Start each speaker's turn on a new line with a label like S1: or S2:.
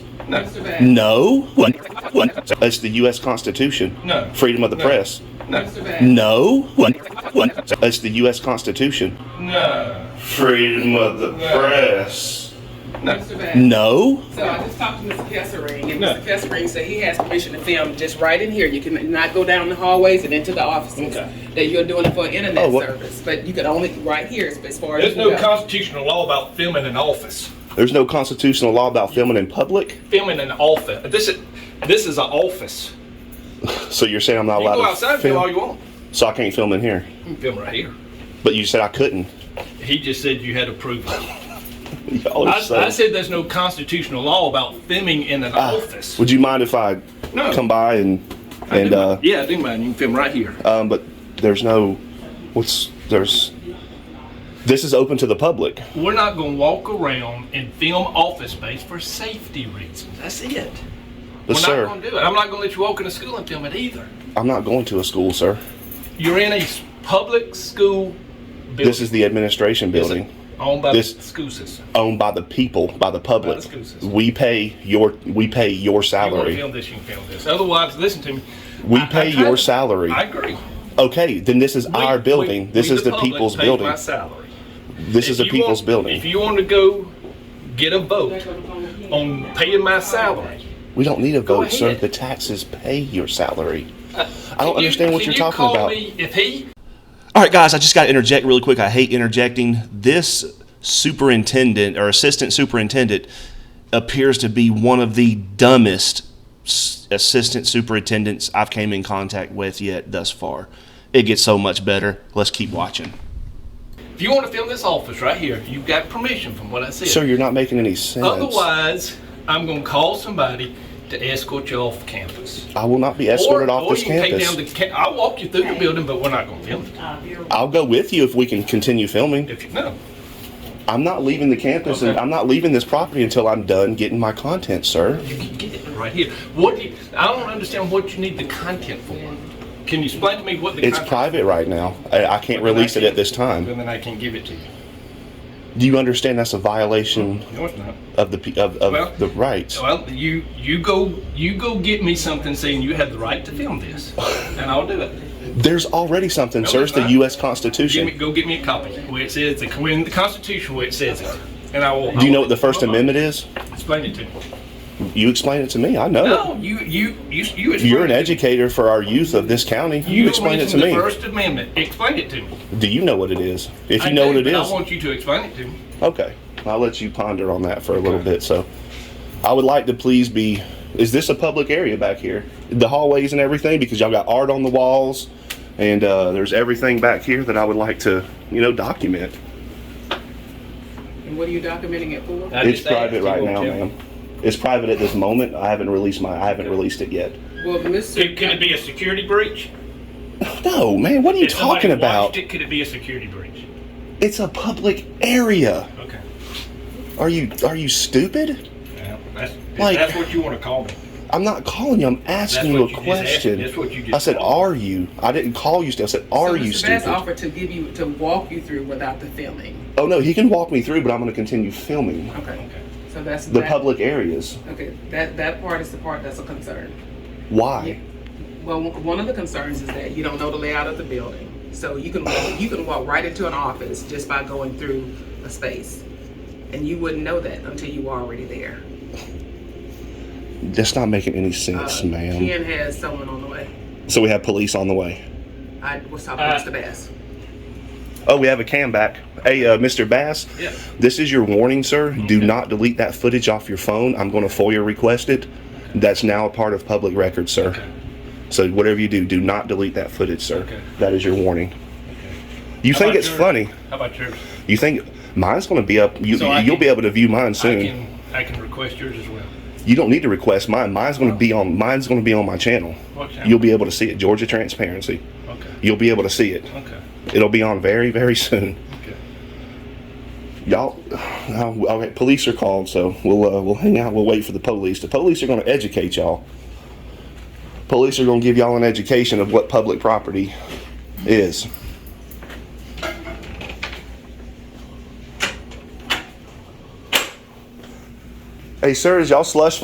S1: No.
S2: No. One, one. That's the U.S. Constitution.
S1: No.
S2: Freedom of the
S1: No.
S2: press.
S1: No.
S2: No. One, one. That's the U.S. Constitution.
S1: No.
S2: Freedom of the
S1: No.
S2: press.
S1: No.
S2: No.
S3: So I just talked to Mr. Kessering, and
S1: No.
S3: Mr. Kessering said he has permission to film just right in here. You can not go down the hallways and into the offices.
S1: Okay.
S3: That you're doing it for internet
S2: Oh, what-
S3: service, but you can only right here as, as far
S1: There's
S3: as you
S1: no
S3: go.
S1: constitutional law about filming an office.
S2: There's no constitutional law about filming in public.
S1: Filming an office. This is this is an office.
S2: So you're saying I'm not
S1: You
S2: allowed
S1: go
S2: to
S1: outside and film all
S2: film?
S1: you want.
S2: So I can't film in here.
S1: You can film right here.
S2: But you said I couldn't.
S1: He just said you had approval.
S2: Y'all are
S1: I,
S2: so-
S1: I said there's no constitutional law about filming in an
S2: Ah,
S1: office.
S2: Would you mind if I
S1: No.
S2: come by and
S1: I do
S2: and
S1: mine.
S2: uh,
S1: yeah, I do mind. You can film right here.
S2: um, but there's no what's there's this is open to the public.
S1: We're not going to walk around and film office space for safety reasons. That's it.
S2: But
S1: We're
S2: sir,
S1: not going to do it. I'm not going to let you walk into school and film it either.
S2: I'm not going to a school, sir.
S1: You're in a s- public school building.
S2: This is the administration
S1: It's
S2: building
S1: owned by
S2: This-
S1: the school system.
S2: owned by the people, by the public.
S1: By the school system.
S2: we pay your we pay your
S1: You want to
S2: salary.
S1: film this, you can film this. Otherwise, listen to me.
S2: We
S1: I- I
S2: pay
S1: tried
S2: your
S1: to-
S2: salary.
S1: I agree.
S2: Okay, then this is our
S1: We-
S2: building.
S1: we-
S2: this
S1: we,
S2: is the,
S1: public,
S2: people's
S1: pay
S2: building.
S1: My salary.
S2: This is
S1: If
S2: the
S1: you
S2: people's
S1: want-
S2: building.
S1: If you want to go get a vote on paying my salary,
S2: we don't need a
S1: Go
S2: vote, sir.
S1: ahead. Uh,
S2: The taxes pay your salary. I
S1: you-
S2: don't understand what
S1: can
S2: you're
S1: you
S2: talking
S1: call
S2: about.
S1: me if he
S2: All right, guys, I just got to interject really quick. I hate interjecting. This superintendent or assistant superintendent appears to be one of the dumbest s- assistant superintendents I've came in contact with yet thus far. It gets so much better. Let's keep watching.
S1: if you want to film this office right here, you've got permission from what I said.
S2: Sir, you're not making any sense.
S1: Otherwise, I'm going to call somebody to escort you off campus.
S2: I will not be escorted
S1: or,
S2: off
S1: or
S2: this
S1: you can
S2: campus.
S1: Take down the ca- I'll walk you through the building, but we're not going to film it.
S2: I'll go with you if we can continue filming.
S1: If you know.
S2: I'm not leaving the campus and
S1: Okay.
S2: I'm not leaving this property until I'm done getting my content, sir.
S1: You can get it right here. What do you, I don't understand what you need the content for. Can you explain to me what the
S2: It's
S1: content
S2: private right now. I, I can't release it at this time.
S1: And then I can give it to you.
S2: Do you understand that's a violation
S1: No, it's not.
S2: of the pe- of, of
S1: Well-
S2: the rights.
S1: Well, you you go you go get me something saying you have the right to film this, and I'll do it.
S2: There's already something, sir. It's the
S1: there's not.
S2: U.S.
S1: Give me,
S2: Constitution.
S1: go get me a copy where it says the, in the Constitution where it says it, and I will.
S2: Do you know what the First Amendment is?
S1: Explain it to me.
S2: You explain it to me. I know.
S1: No, you you you you.
S2: it. You're an
S1: explain it to me.
S2: educator for our youth of this county.
S1: You
S2: You explain it to
S1: mentioned
S2: me.
S1: The First Amendment. Explain it to me.
S2: Do you know what it is? If
S1: I
S2: you know what
S1: do,
S2: it
S1: but
S2: is,
S1: I want you to explain it to me.
S2: okay. I'll let you ponder on that for a little bit. So, I would like to please be. Is this a public area back here? The hallways and everything, because y'all got art on the walls, and uh, there's everything back here that I would like to, you know, document.
S3: And what are you documenting it for?
S1: I
S2: It's
S1: just asked
S2: private
S1: you,
S2: right
S1: won't
S2: now,
S1: you?
S2: ma'am. It's private at this moment. I haven't released my. I haven't released it yet.
S3: Well, Mr.
S1: Could, could it be a security breach?
S2: No, man. What are you
S1: If somebody
S2: talking
S1: watched
S2: about?
S1: It, could it be a security breach?
S2: It's a public area.
S1: Okay.
S2: Are you are you stupid?
S1: Well, that's, if
S2: Like-
S1: that's what you want to call me.
S2: I'm not calling you. I'm asking you
S1: That's what
S2: a
S1: you just asked.
S2: question.
S1: That's what you just
S2: I said,
S1: called.
S2: "Are you?" I didn't call you. stupid. I said, "Are
S3: so
S2: you
S3: Mr. Bass
S2: stupid?"
S3: offered to give you to walk you through without the filming.
S2: Oh no, he can walk me through, but I'm going to continue filming
S3: Okay.
S1: Okay.
S3: So that's
S2: the
S3: that,
S2: public areas.
S3: Okay, that that part is the part that's a concern.
S2: Why?
S3: Well, w- one of the concerns is that you don't know the layout of the building, so you can walk, you can walk right into an office just by going through a space, and you wouldn't know that until you were already there.
S2: That's not making any sense,
S3: Uh,
S2: ma'am.
S3: Ken has someone on the way.
S2: So we have police on the way.
S3: I was talking
S1: Uh,
S3: to Mr. Bass.
S2: Oh, we have a cam back. Hey, uh, Mr. Bass.
S1: Yeah.
S2: This is your warning, sir. Do not delete that footage off your phone. I'm going to FOIA request it. That's now a part of public record, sir. So whatever you do, do not delete that footage, sir.
S1: Okay.
S2: That is your warning. You
S1: How
S2: think
S1: about
S2: it's
S1: yours?
S2: funny?
S1: How about yours?
S2: You think mine's going to be up? You,
S1: So I
S2: you'll
S1: can-
S2: be able to view mine
S1: I
S2: soon.
S1: can I can request yours as well.
S2: You don't need to request mine. Mine's going to be on. Mine's going to be on my channel.
S1: Oh. What channel?
S2: You'll be able to see it. Georgia Transparency.
S1: Okay.
S2: You'll be able to see it.
S1: Okay.
S2: It'll be on very, very soon.
S1: Okay.
S2: Y'all, no, all right, police are called, so we'll uh, we'll hang out. We'll wait for the police. The police are going to educate y'all. Police are going to give y'all an education of what public property is. Hey, sir, is y'all slush